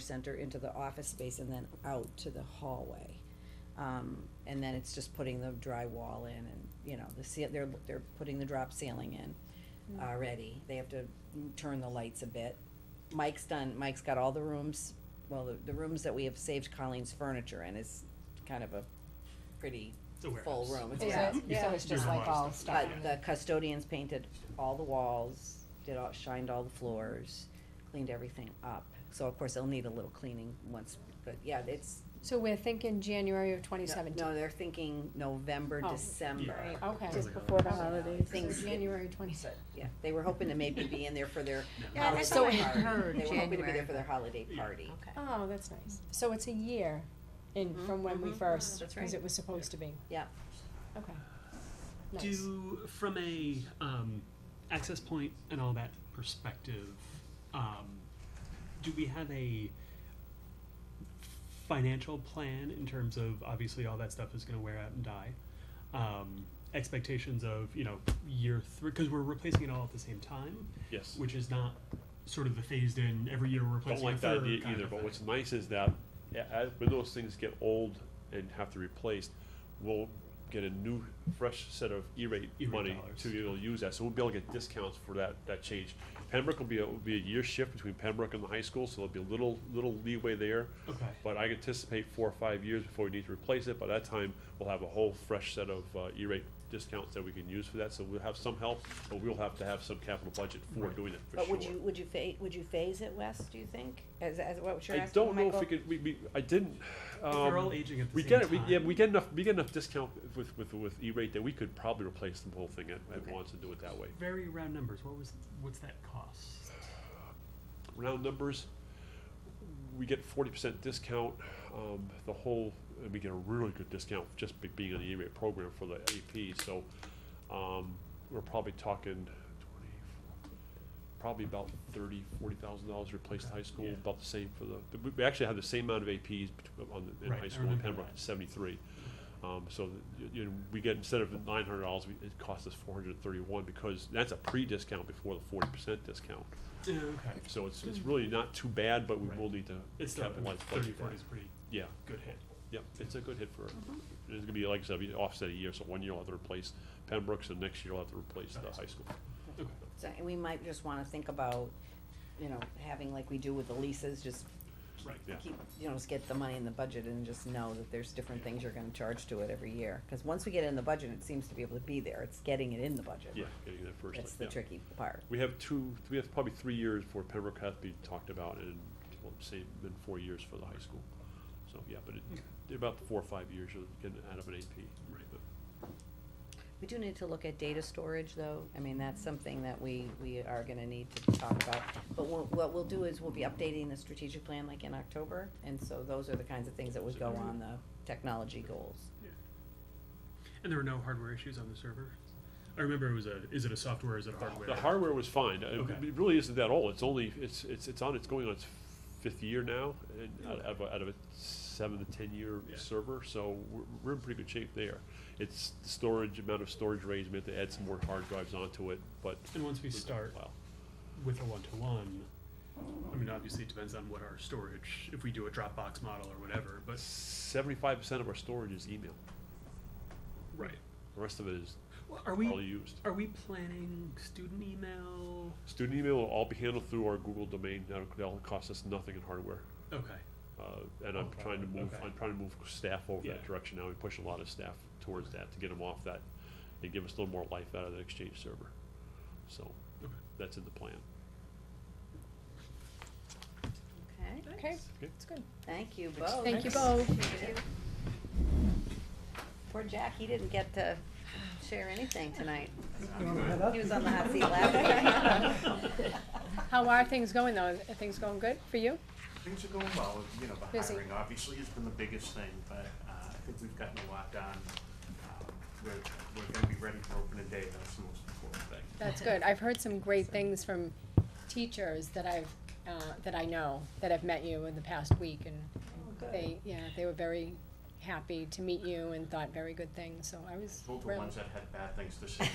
center into the office space and then out to the hallway. Um, and then it's just putting the drywall in and, you know, the ce- they're, they're putting the drop ceiling in already. They have to turn the lights a bit. Mike's done, Mike's got all the rooms, well, the, the rooms that we have saved Colleen's furniture in is kind of a pretty The full warehouse. room. It's Is warehouse. it? So it's There's just a like lot of all stuff. stuff. Uh, the custodians painted all the walls, did all, shined all the floors, cleaned everything up. So of course, they'll need a little cleaning once, but yeah, it's, So we're thinking January of no- twenty seventeen. no, they're thinking November, Oh. December. Yeah. Okay. Sounds Just like a- before the holidays. So Things- January twenty So, seventeen. yeah, they were hoping to maybe be in there for their Uh, Yeah, holiday that's party. what I heard, They were hoping to be there January. for their holiday Yeah. party. Okay. Oh, that's nice. Mm-hmm, Oh, So it's a year in, Mhm, from when we mhm. first, That's because right. it was supposed to be. Yeah. Okay. Nice. Do from a um, access point and all that perspective, um, do we have a financial plan in terms of obviously all that stuff is going to wear out and die? Um, expectations of you know year three because we're replacing it all at the same time, Yes. which is not sort of the phased in every year we're Don't replacing. like a that third idea kind either, of but thing. what's nice is that, a- as, when those things get old and have to be replaced, we'll get a new, fresh set of E-rate E-rate money dollars. to be able to use that, so we'll be able to get discounts for that, that change. Pembroke will be, a- will be a year shift between Pembroke and the high school, so there'll be a little, little leeway there. okay. But I anticipate four or five years before we need to replace it, by that time, we'll have a whole fresh set of, uh, E-rate discounts that we can use for that, so we'll have some help, but we'll have to have some capital budget for Right. doing it, for sure. But would you, would you fa- would you phase it, Wes, do you think? As, as what you're I asking, don't know if Michael? we could. We, we I didn't. Um, if they're all aging at the we same get it. time. We, yeah, we get enough. We get enough discount with with with E-rate that we could probably replace the whole thing at, at Okay. once and do it that way. very round numbers. What was what's that cost? Round numbers. We get forty percent discount. Um, the whole and we get a really good discount just be, being on the E-rate program for the AP. So um, we're probably talking. 20, Probably about thirty, forty thousand dollars replaced Okay, high school. yeah. About the same for the. we- We actually have the same amount of APs bet- on the, in Right, I high school in remember Pembroke, that. seventy-three. Um, so, th- you know, we get, instead of nine hundred dollars, it costs us four hundred and thirty-one, because that's a pre-discount before the forty percent discount. okay. So it's, it's really not too bad, but we Right. will need to It's still capitalize. budget 30, there. 40 is a pretty Yeah, good hit. yep, it's a good hit for, Mm-hmm. it's gonna be, like I said, we offset a year, so one year we'll have to replace Pembroke's, and next year we'll have to replace the Nice. high school. Okay. So, and we might just wanna think about, you know, having like we do with the leases, just Right. Yeah. keep, you know, just get the money in the budget and just know that there's different things you're gonna charge to it every year. Cause once we get it in the budget, it seems to be able to be there, it's getting it in the budget. Yeah, getting that first. That's thing, the yeah. tricky part. We have two, we have probably three years for Pembroke has to be talked about and, well, say, been four years for the high school. So, yeah, but it, they're about four or five years you'll get out of an AP. Right. We do need to look at data storage, though. I mean, that's something that we, we are gonna need to talk about. But what, what we'll do is we'll be updating the strategic plan like in October, and so those are the kinds of things that would go on the technology goals. And there were no hardware issues on the server. I remember it was a. Is it a software? Is it a hardware? The hardware was fine. Uh, Okay. It really isn't that old. It's only, it's, it's, it's on, it's going on its fifth year now, and out of, a- out of a seven to ten-year Yeah. server, so we're, we're in pretty good shape there. It's the storage, amount of storage raised, we have to add some more hard drives onto it, but. And once we it'll take a start while. with a one-to-one, I mean, obviously it depends on what our storage. If we do a Dropbox model or whatever, but Seventy-five percent of our storage is email. right. The rest of it is Well, are we? all used. Are we planning student email? Student email will all be handled through our Google domain. That'll, that'll cost us nothing in hardware. Okay. Uh, and I'm Okay, trying to move, okay. I'm trying to move staff over that Yeah. direction now. We push a lot of staff towards that to get them off that and give us a little more life out of the Exchange server. So Okay. that's in the plan. Okay, Okay, Okay. that's good. thank you both. Thank you both. Thank you. Poor Jack, he didn't get to share anything tonight. He was on the hot seat last night. How are things going though? Are things going good for you? Things are going well, you know, the Busy. hiring obviously has been the biggest thing, but uh, I think we've gotten a lot done. Um, We're, we're gonna be ready for opening day, that's the most important thing. That's good. I've heard some great things from teachers that I've, uh, that I know, that have met you in the past week and they, yeah, they were very happy to meet you and thought very good things, so I was Those were thrilled. ones that had bad things to say.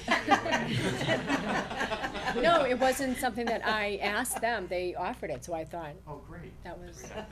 stay away. No, it wasn't something that I asked them, they offered it, so I thought Oh, great. that was, Great.